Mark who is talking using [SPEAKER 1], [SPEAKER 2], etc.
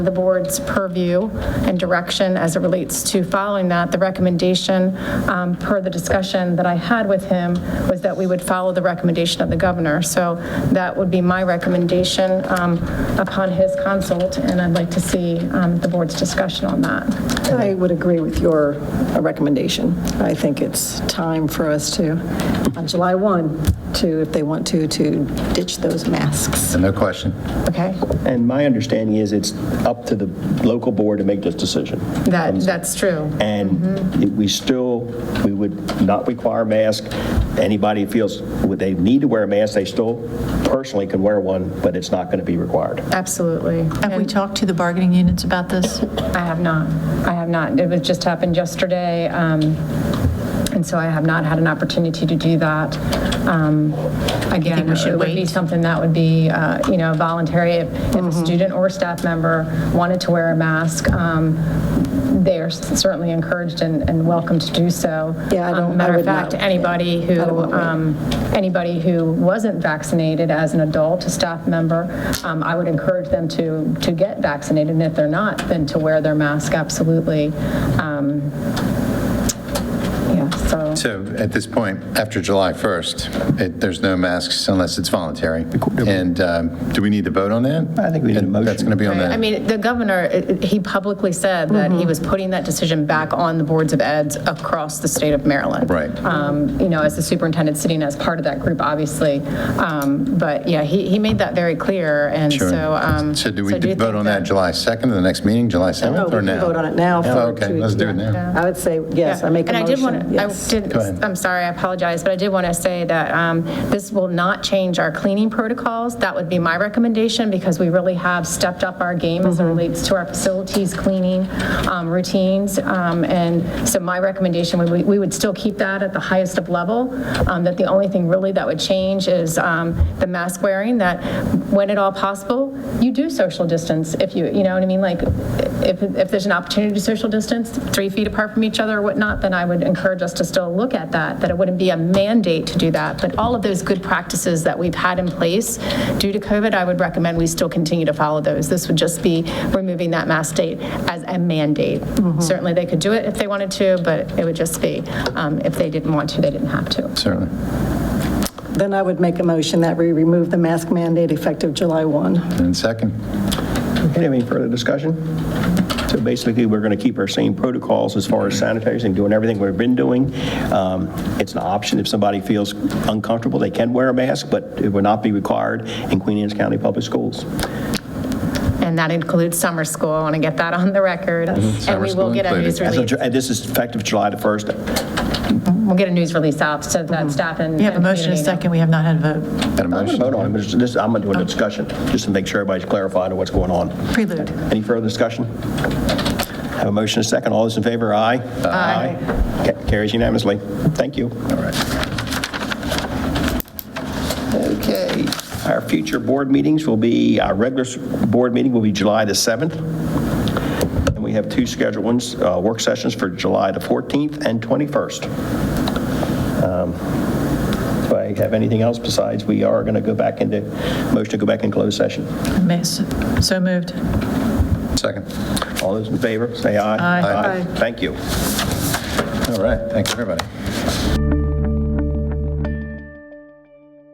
[SPEAKER 1] the board's purview and direction as it relates to following that. The recommendation, um, per the discussion that I had with him, was that we would follow the recommendation of the governor. So that would be my recommendation um, upon his consult, and I'd like to see um, the board's discussion on that.
[SPEAKER 2] I would agree with your uh, recommendation. I think it's time for us to, on July 1, to, if they want to, to ditch those masks.
[SPEAKER 3] No question.
[SPEAKER 1] Okay?
[SPEAKER 4] And my understanding is it's up to the local board to make this decision.
[SPEAKER 1] That, that's true.
[SPEAKER 4] And it- we still, we would not require a mask. Anybody feels would they need to wear a mask, they still personally can wear one, but it's not going to be required.
[SPEAKER 1] Absolutely.
[SPEAKER 5] Have we talked to the bargaining units about this?
[SPEAKER 1] I have not. I have not. It was just happened yesterday, um, and so I have not had an opportunity to do that. Um, Again,
[SPEAKER 5] we should
[SPEAKER 1] it would be
[SPEAKER 5] wait? Mm-hmm.
[SPEAKER 1] something that would be, uh, you know, voluntary. If if a student or staff member wanted to wear a mask, um, they are certainly encouraged and and welcome to do so.
[SPEAKER 2] Yeah, I don't-
[SPEAKER 1] Um,
[SPEAKER 2] I
[SPEAKER 1] Matter of
[SPEAKER 2] would not.
[SPEAKER 1] fact, anybody who, um, anybody who wasn't vaccinated as an adult, a staff member, um, I would encourage them to, to get vaccinated, and if they're not, then to wear their mask, absolutely. Um, Yeah, so,
[SPEAKER 3] So at this point, after July 1st, it- there's no masks unless it's voluntary. And um, do we need to vote on that? I think we need a motion. That's going to be on
[SPEAKER 1] I
[SPEAKER 3] the,
[SPEAKER 1] mean, the governor, it- it- he publicly said that he was putting that decision back on the boards of eds across the state of Maryland.
[SPEAKER 3] Right.
[SPEAKER 1] Um, You know, as the superintendent sitting as part of that group, obviously. Um, But yeah, he, he made that very clear, and so. um,
[SPEAKER 3] sure. So do we
[SPEAKER 1] so you
[SPEAKER 3] vote
[SPEAKER 1] think
[SPEAKER 3] on
[SPEAKER 1] that-
[SPEAKER 3] that July 2nd, the next meeting, July 7th,
[SPEAKER 2] Oh, we
[SPEAKER 3] or
[SPEAKER 2] can
[SPEAKER 3] now?
[SPEAKER 2] vote on it now
[SPEAKER 3] Oh,
[SPEAKER 2] for
[SPEAKER 3] Okay,
[SPEAKER 2] two-
[SPEAKER 3] let's do it
[SPEAKER 2] yeah.
[SPEAKER 3] now.
[SPEAKER 2] I would say, yes, I make a
[SPEAKER 1] And I did want
[SPEAKER 2] motion,
[SPEAKER 1] to, I
[SPEAKER 2] yes.
[SPEAKER 1] did,
[SPEAKER 3] ahead.
[SPEAKER 1] I'm sorry, I apologize, but I did want to say that um, this will not change our cleaning protocols. That would be my recommendation because we really have stepped up our game as it
[SPEAKER 2] Mm-hmm.
[SPEAKER 1] relates to our facilities cleaning um, routines. Um, And so my recommendation, would we we would still keep that at the highest of level, um, that the only thing really that would change is um, the mask wearing, that when at all possible, you do social distance if you, you know what I mean? Like, if, if there's an opportunity to social distance, three feet apart from each other or whatnot, then I would encourage us to still look at that, that it wouldn't be a mandate to do that. But all of those good practices that we've had in place due to COVID, I would recommend we still continue to follow those. This would just be removing that mask date as a mandate. Certainly, they could do it if they wanted to, but it would just be, um, if they didn't want to, they didn't have to.
[SPEAKER 3] Certainly.
[SPEAKER 2] Then I would make a motion that we remove the mask mandate effective July 1.
[SPEAKER 3] And second?
[SPEAKER 4] Okay, Any further discussion? So basically, we're going to keep our same protocols as far as sanitizing, doing everything we've been doing. Um, It's an option. If somebody feels uncomfortable, they can wear a mask, but it will not be required in Queen Anne's County Public Schools.
[SPEAKER 1] And that includes summer school. I want to get that on the record. And
[SPEAKER 3] Summer
[SPEAKER 1] we
[SPEAKER 3] school
[SPEAKER 1] will get a
[SPEAKER 3] included.
[SPEAKER 1] news
[SPEAKER 4] As of
[SPEAKER 1] release.
[SPEAKER 4] Ju- and This is effective July the 1st.
[SPEAKER 1] We'll get a news release out so that staff and.
[SPEAKER 5] We have a
[SPEAKER 1] and
[SPEAKER 5] motion, and
[SPEAKER 1] community
[SPEAKER 5] a
[SPEAKER 1] know.
[SPEAKER 5] second, we have not had a vote.
[SPEAKER 3] Got a
[SPEAKER 4] I'm going to
[SPEAKER 3] motion?
[SPEAKER 4] vote on it, but this- I'm going to do a discussion, just to make sure everybody's clarified on what's going on.
[SPEAKER 5] Prelude.
[SPEAKER 4] Any further discussion? Have a motion, a second. All those in favor, aye? Aye. Ca- Carries unanimously. Thank you. All right. Okay. Our future board meetings will be, our regular s- board meeting will be July the 7th. And we have two scheduled ones, uh, work sessions for July the 14th and 21st. Um, Do I have anything else besides, we are going to go back into, motion to go back in closed session.
[SPEAKER 5] May- So moved.
[SPEAKER 3] Second.
[SPEAKER 4] All those in favor, say aye.
[SPEAKER 5] Aye.
[SPEAKER 3] Aye.
[SPEAKER 4] Thank you.
[SPEAKER 3] All right, thanks, everybody.